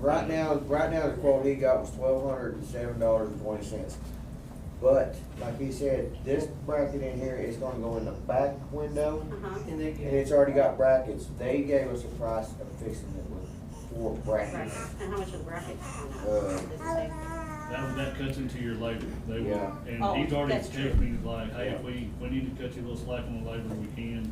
Right now, right now, the quote he got was twelve hundred and seven dollars and twenty cents. But, like he said, this bracket in here is gonna go in the back window, Uh-huh. And they and get, it's already got brackets. They gave us a price of fixing it with four Right. brackets. And how much are the brackets? Uh, That, that cuts into your labor, they will, Yeah. Oh, and he's already that's true. expecting, like, hey, if Yeah. we, we need to cut you a little slack on the labor, we can.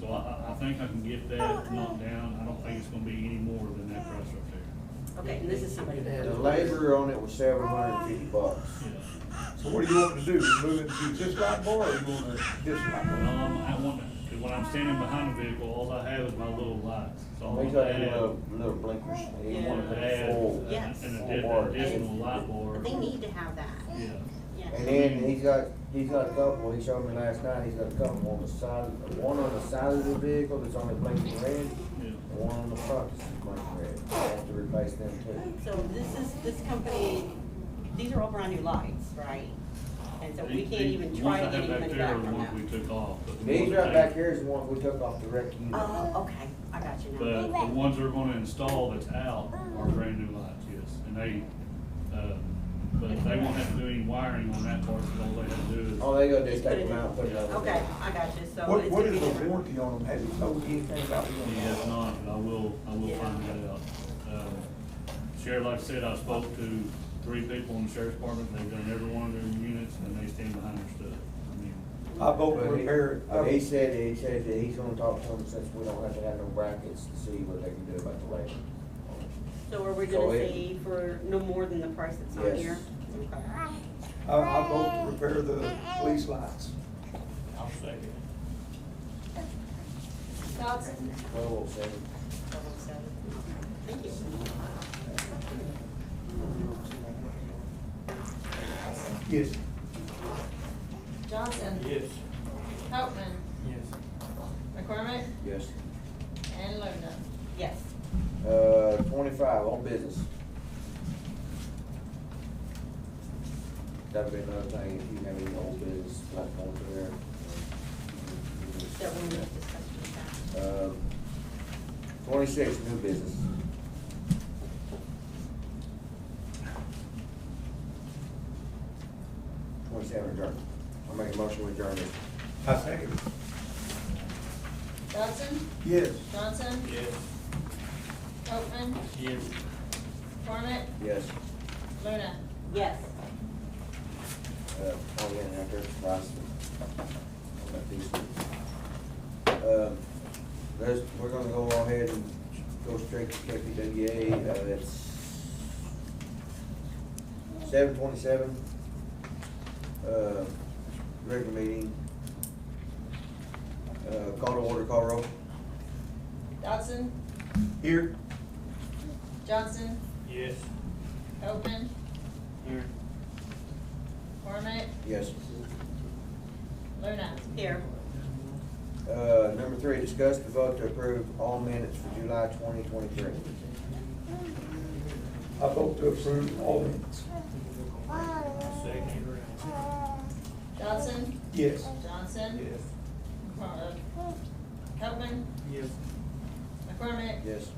So I, I, I think I can get Oh, that knocked down, I don't think it's gonna be any more than that price right there. Okay, and this is somebody that. The labor on it was seven hundred and fifty bucks. Yeah. So what do you want to do? Move it to this light bar or you want to this light bar? Well, I'm, Um, I want, cause when I'm standing behind the vehicle, all I have is my little lights, so I He's want to got add, them little, little blinkers. He I wanted want to to put full. add Yes. an Full addi- additional light But bar. They need to have that, Yeah. And yeah. then he's got, he's got a couple, he showed me last night, he's got a couple on the side, one on the side of the vehicle that's only blinking red, and Yeah. one on the front that's blinking red. I have to replace them too. So this is, this company, these are all brand new lights, right? And so we These- can't these- even try to ones I get have any money there back are the from ones that. We took off. but the These ones right that- back here is the one we took off the wreck unit. Oh, okay, I got you But the now. ones they're gonna install that's out Uh-huh. are brand new lights, yes, and they, uh, but they won't have to do any wiring on that part, 'cause all they have to do is. All they gotta do is take them out, and put it on. Okay, I got you, so. What, it's gonna what is be the different. warranty on them? Has it told you anything about the He warranty? has not, but I will, I will find that out. Um, Sheriff, like I said, I spoke to three people in the sheriff's department, they've done every one of their units, and they stand behind their stuff. I mean, I vote to But he- repair it. But he said, he said that he's gonna talk to them since we don't have to have no brackets to see what they can do about the labor. So are we So gonna it- say for no more than the price that's on Yes. here? Okay. I, I vote to repair the police lights. I'll second it. Johnson, Twelve oh seven. Thank you. Yes. Johnson. Yes. Copman. Yes. McCormick Yes. and Lerna. Yes. Uh, twenty-five, on business. That'd be another thing, if you have any old business, like going to there. That one we discussed with that. Uh, Twenty-six, new business. Twenty-seven, adjourn. I'll make a motion with adjournment. I second it. Johnson, Yes. Johnson, Yes. Copman, Yes. McCormick, Yes. Lerna. Yes. Uh, I'll get it after, it's last. I'll let these- Uh, There's, we're gonna go ahead and go straight to KPWA, uh, it's seven twenty-seven. Uh, regular meeting. Uh, call to order, call roll. Dodson, Here. Johnson, Yes. Copman, Here. McCormick, Yes. Lerna. Here. Uh, number three, discuss the vote to approve all minutes for July twenty twenty-three. I vote to approve all minutes. Dodson, Yes. Johnson, Yes. McCor- uh, Copman, Yes. McCormick, Yes.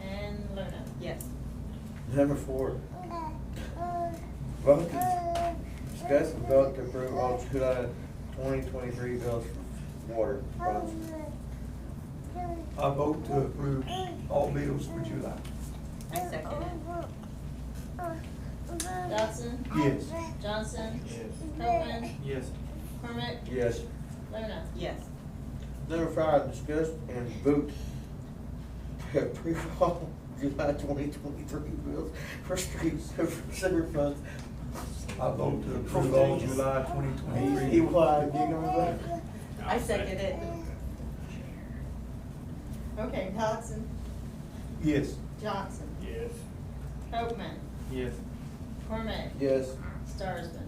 and Lerna. Yes. Number four. Vote to, discuss and vote to approve all July twenty twenty-three bills for water funds. I vote to approve all bills for July. I second it. Dodson, Yes. Johnson, Copman, Yes. McCormick, Yes. Lerna. Yes. Number five, discuss and vote to approve all July twenty twenty-three bills for streets and for sewer funds. I vote to approve all July twenty twenty-three. He lied, you gonna vote? I second it. Okay, Dodson, Yes. Johnson, Yes. Copman, Yes. McCormick, Yes. Starsman.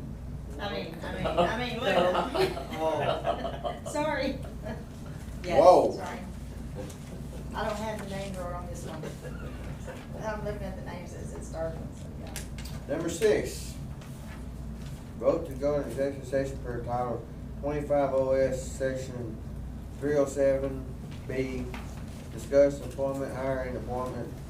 I mean, I mean, I mean, Lerna. Sorry. Yes. Whoa. Sorry. I don't have the name drawer on this one. I'm looking at the names, it says Starsman, so yeah. Number six, vote to go into executive session per title twenty-five OS section three oh seven B. Discuss employment, hiring, appointment,